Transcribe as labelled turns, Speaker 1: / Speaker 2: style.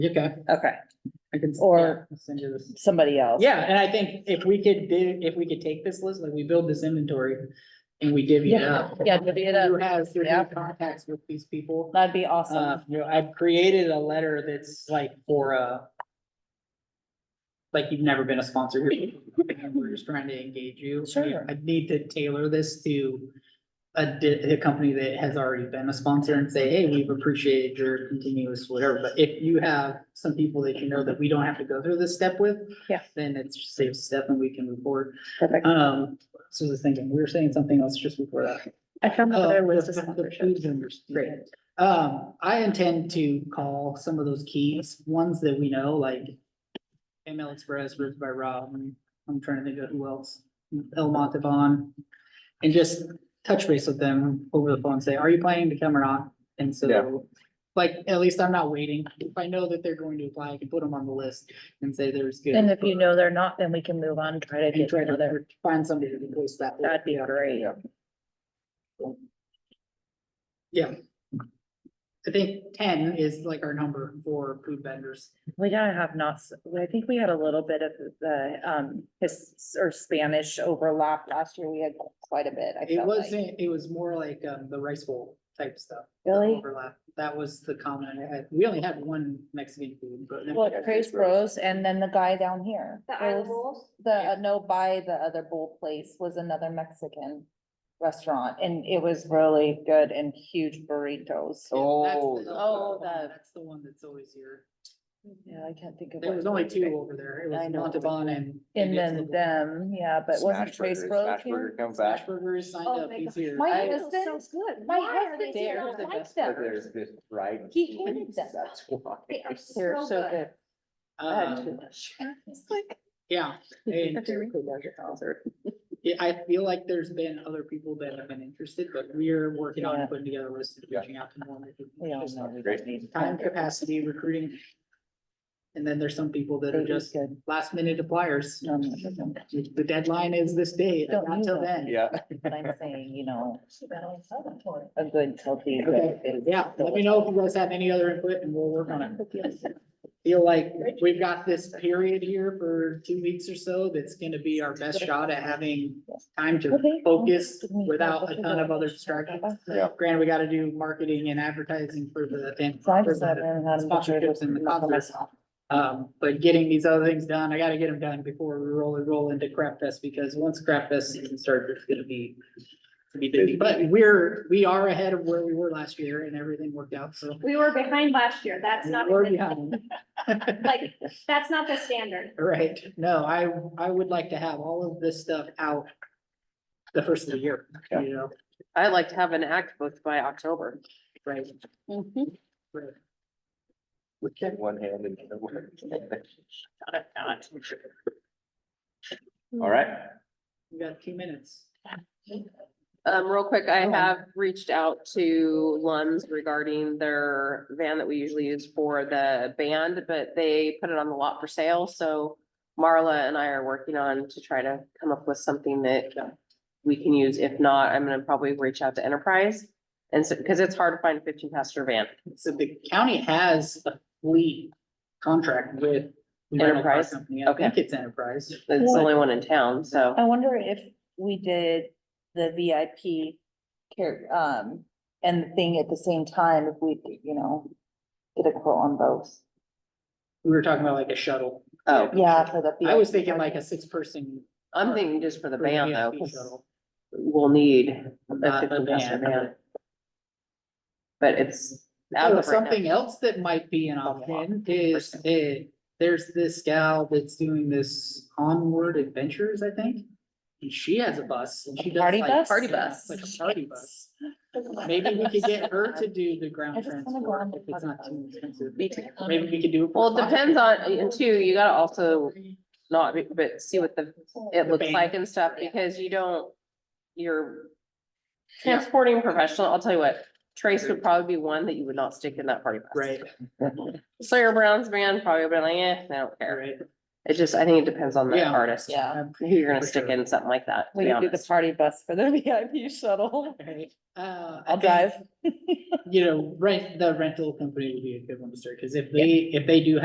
Speaker 1: You can,
Speaker 2: Okay,
Speaker 1: I can.
Speaker 2: Or-
Speaker 1: yeah, I'll Send you this.
Speaker 2: somebody else.
Speaker 1: Yeah, and I think if we could do, if we could take this list, like we build this inventory and we divvy it up.
Speaker 2: Yeah, divvy it
Speaker 1: Who
Speaker 2: up.
Speaker 1: has, who
Speaker 2: Yeah.
Speaker 1: has contacts with these people?
Speaker 2: That'd be awesome.
Speaker 1: Uh, you know, I've created a letter that's like for a. Like you've never been a sponsor here, and we're just trying to engage you.
Speaker 2: Sure.
Speaker 1: I need to tailor this to. A di- a company that has already been a sponsor and say, hey, we've appreciated your continuous whatever, but if you have some people that you know that we don't have to go through this step with.
Speaker 2: Yeah.
Speaker 1: Then it's just saves a step and we can move forward.
Speaker 2: Perfect.
Speaker 1: Um, so I was thinking, we were saying something else just before that.
Speaker 2: I found
Speaker 1: Oh,
Speaker 2: that there was
Speaker 1: the-
Speaker 2: a
Speaker 1: the
Speaker 2: sponsorship.
Speaker 1: food vendors.
Speaker 2: Great.
Speaker 1: Um, I intend to call some of those keys, ones that we know, like ML Express, Ribs by Rob, and I'm trying to think of who else, El Montavon. And just touch base with them over the phone, say, are you planning to come or not? And
Speaker 3: Yeah.
Speaker 1: so, like, at least I'm not waiting. If I know that they're going to apply, I can put them on the list and say there's good.
Speaker 2: And if you know they're not, then we can move on, and try to
Speaker 1: And
Speaker 2: get
Speaker 1: try
Speaker 2: another.
Speaker 1: to find somebody to replace that. with.
Speaker 2: That'd be great.
Speaker 1: I think ten is like our number for food vendors.
Speaker 2: We gotta have not, s- I think we had a little bit of the, um, his, or Spanish overlap last year. We had quite a bit. I
Speaker 1: It
Speaker 2: felt like.
Speaker 1: wasn't, it was more like, um, the rice bowl type stuff. the
Speaker 2: Really?
Speaker 1: Overlap. That was the comment I had. We only had one Mexican food, but.
Speaker 2: Well, Trace Bros and then the guy down here.
Speaker 4: The
Speaker 2: There
Speaker 4: Isle of
Speaker 2: was-
Speaker 4: Wolves?
Speaker 2: The, uh, no, by the other bowl place was another Mexican restaurant and it was really good and huge burritos.
Speaker 3: Oh,
Speaker 2: Oh, the-
Speaker 1: That's the one that's always here.
Speaker 2: Yeah, I can't think of.
Speaker 1: There
Speaker 2: what
Speaker 1: was
Speaker 2: it
Speaker 1: only
Speaker 2: was.
Speaker 1: two over there. It
Speaker 2: I
Speaker 1: was
Speaker 2: know.
Speaker 1: Montalban and.
Speaker 2: And
Speaker 1: it's
Speaker 2: then
Speaker 1: the-
Speaker 2: them, yeah, but wasn't
Speaker 3: Smash
Speaker 2: Trace
Speaker 3: Burger,
Speaker 2: Bros
Speaker 3: Smash Burger
Speaker 2: here?
Speaker 3: Comes
Speaker 1: Smash
Speaker 3: back.
Speaker 1: Burger is signed
Speaker 4: Oh
Speaker 1: up.
Speaker 4: my
Speaker 1: He's
Speaker 4: gosh.
Speaker 1: here.
Speaker 2: My
Speaker 1: I-
Speaker 2: husband-
Speaker 4: Sounds good.
Speaker 2: My
Speaker 4: Why are
Speaker 2: husband
Speaker 4: they
Speaker 2: did
Speaker 4: so
Speaker 2: not
Speaker 4: not
Speaker 2: like them.
Speaker 4: like
Speaker 3: But
Speaker 4: them?
Speaker 3: there's just right.
Speaker 4: He hated them.
Speaker 3: That's why.
Speaker 4: They are
Speaker 2: They're
Speaker 4: so
Speaker 2: so
Speaker 4: good.
Speaker 2: good. I had too
Speaker 1: Um,
Speaker 2: much.
Speaker 1: yeah. and-
Speaker 2: That's a really
Speaker 1: Yeah, I feel like there's been other people that have been interested, but we're working on
Speaker 2: Yeah.
Speaker 1: putting together a list and
Speaker 3: Yeah.
Speaker 1: reaching out to more. people.
Speaker 2: We all
Speaker 1: Just
Speaker 2: know we
Speaker 3: Great.
Speaker 2: don't need.
Speaker 1: Time capacity recruiting. And then there's some people that are just last minute appliers.
Speaker 2: Um, But
Speaker 1: The deadline is this day,
Speaker 2: Don't
Speaker 1: not
Speaker 2: need
Speaker 1: till
Speaker 2: that.
Speaker 1: then.
Speaker 3: Yeah.
Speaker 2: I'm saying, you know, a good healthy.
Speaker 1: Okay, yeah, let me know if you guys have any other input and we'll work on it. Feel like we've got this period here for two weeks or so that's gonna be our best shot at having time to
Speaker 2: Okay.
Speaker 1: focus without a ton of other distractions. Granted, we gotta do marketing and advertising for the event,
Speaker 2: So I
Speaker 1: for
Speaker 2: just sat
Speaker 1: the
Speaker 2: there and had a picture of
Speaker 1: sponsorships and the
Speaker 2: this for
Speaker 1: concerts.
Speaker 2: myself.
Speaker 1: Um, but getting these other things done, I gotta get them done before we roll and roll into Crap Fest, because once Crap Fest season starts, it's gonna be. it's gonna Be busy, but we're, we are ahead of where we were last year and everything worked out, so.
Speaker 4: We were behind last year. That's not,
Speaker 1: We're
Speaker 4: the-
Speaker 1: behind.
Speaker 4: like, that's not the standard.
Speaker 1: Right, no, I, I would like to have all of this stuff out. The first of the year,
Speaker 3: Yeah.
Speaker 1: you know,
Speaker 5: I'd like to have an act book by October.
Speaker 1: right?
Speaker 2: Mm-hmm.
Speaker 3: We can one hand and. the other. All right.
Speaker 1: We got two minutes.
Speaker 5: Um, real quick, I
Speaker 1: Oh.
Speaker 5: have reached out to Luns regarding their van that we usually use for the band, but they put it on the lot for sale, so Marla and I are working on to try to come up with something that we can use. If not, I'm gonna probably reach out to Enterprise. And so, because it's hard to find a fifteen passenger van.
Speaker 1: So the county has a fleet contract with. the rental car
Speaker 5: Enterprise?
Speaker 1: company. I think it's Enterprise.
Speaker 5: It's the only one in town, so.
Speaker 2: I wonder if we did the VIP care, um, and the thing at the same time, if we, could, you know, get a quote on both.
Speaker 1: We were talking about like a shuttle.
Speaker 5: Oh,
Speaker 2: Yeah, for the.
Speaker 1: I was
Speaker 2: VIP.
Speaker 1: thinking like a six person.
Speaker 5: I'm thinking just for the
Speaker 1: for the
Speaker 5: van though,
Speaker 1: VIP
Speaker 5: 'cause
Speaker 1: shuttle,
Speaker 5: we'll need a
Speaker 1: Not the
Speaker 5: fifteen passenger van.
Speaker 1: van.
Speaker 5: But it's. out
Speaker 1: Oh,
Speaker 5: of right now.
Speaker 1: Something else that might be an option is, eh, there's this gal that's doing this onward adventures, I think. And she has a bus and she
Speaker 2: A
Speaker 1: does
Speaker 2: party
Speaker 1: like.
Speaker 2: bus?
Speaker 5: Party
Speaker 1: yeah,
Speaker 5: bus.
Speaker 1: Like a party bus. Maybe we could get her to do the
Speaker 2: I
Speaker 1: ground
Speaker 2: just wanna go
Speaker 1: transport
Speaker 2: on the
Speaker 1: if it's
Speaker 2: party
Speaker 1: not
Speaker 2: bus.
Speaker 1: too expensive.
Speaker 5: Me too.
Speaker 1: Maybe we could do. it for
Speaker 5: Well, it
Speaker 1: five.
Speaker 5: depends on, and two, you gotta also not, be- but see what the, it
Speaker 1: The
Speaker 5: looks
Speaker 1: band.
Speaker 5: like and stuff, because you don't, you're. Transporting professional, I'll tell you what, Trace would probably be one that you would not stick in that party bus.
Speaker 1: Right,
Speaker 5: Sawyer Brown's van probably would be like, eh, I don't care.
Speaker 1: right.
Speaker 5: It just, I think it depends on the
Speaker 1: Yeah.
Speaker 5: artist.
Speaker 2: Yeah.
Speaker 5: Who you're gonna
Speaker 1: For
Speaker 5: stick
Speaker 1: sure.
Speaker 5: in something like that, to
Speaker 2: We
Speaker 5: be
Speaker 2: can do the
Speaker 5: honest.
Speaker 2: party bus for the VIP shuttle.
Speaker 1: Right, uh. I
Speaker 2: I'll
Speaker 1: think,
Speaker 2: drive.
Speaker 1: You know, rent, the rental company would be a good one to start, cause if they, if they do